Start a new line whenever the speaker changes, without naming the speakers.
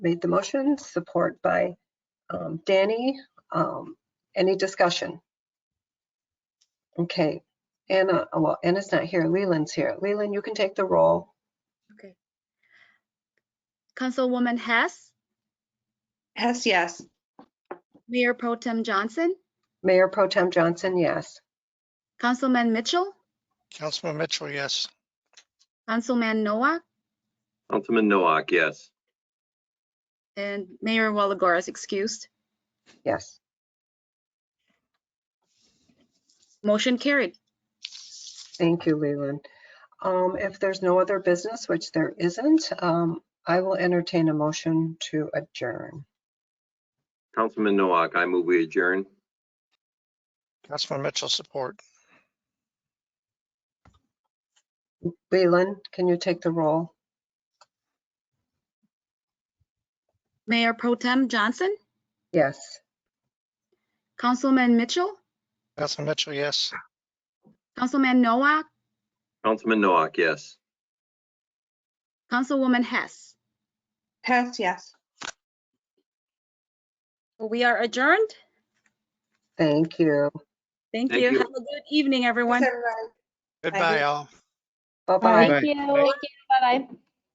made the motion, support by um, Danny. Um, Any discussion? Okay, Anna, oh, well, Anna's not here, Leland's here. Leland, you can take the roll.
Okay. Councilwoman Hess,
Hess, yes.
Mayor Pro Tem Johnson,
Mayor Pro Tem Johnson, yes.
Councilman Mitchell,
Councilman Mitchell, yes.
Councilman Noah,
Councilman Nowak, yes.
and Mayor Walagora is excused.
Yes.
Motion carried.
Thank you, Leland. Um, If there's no other business, which there isn't, um, I will entertain a motion to adjourn.
Councilman Nowak, I move we adjourn.
Councilman Mitchell, support.
Leland, can you take the roll?
Mayor Pro Tem Johnson,
Yes.
Councilman Mitchell,
Councilman Mitchell, yes.
Councilman Noah,
Councilman Nowak, yes.
Councilwoman Hess.
Hess, yes.
We are adjourned.
Thank you.
Thank
Thank
you.
you.
Have a good evening, everyone.
Thanks, everybody.
Goodbye, all.
Bye-bye.
Thank you. Bye bye.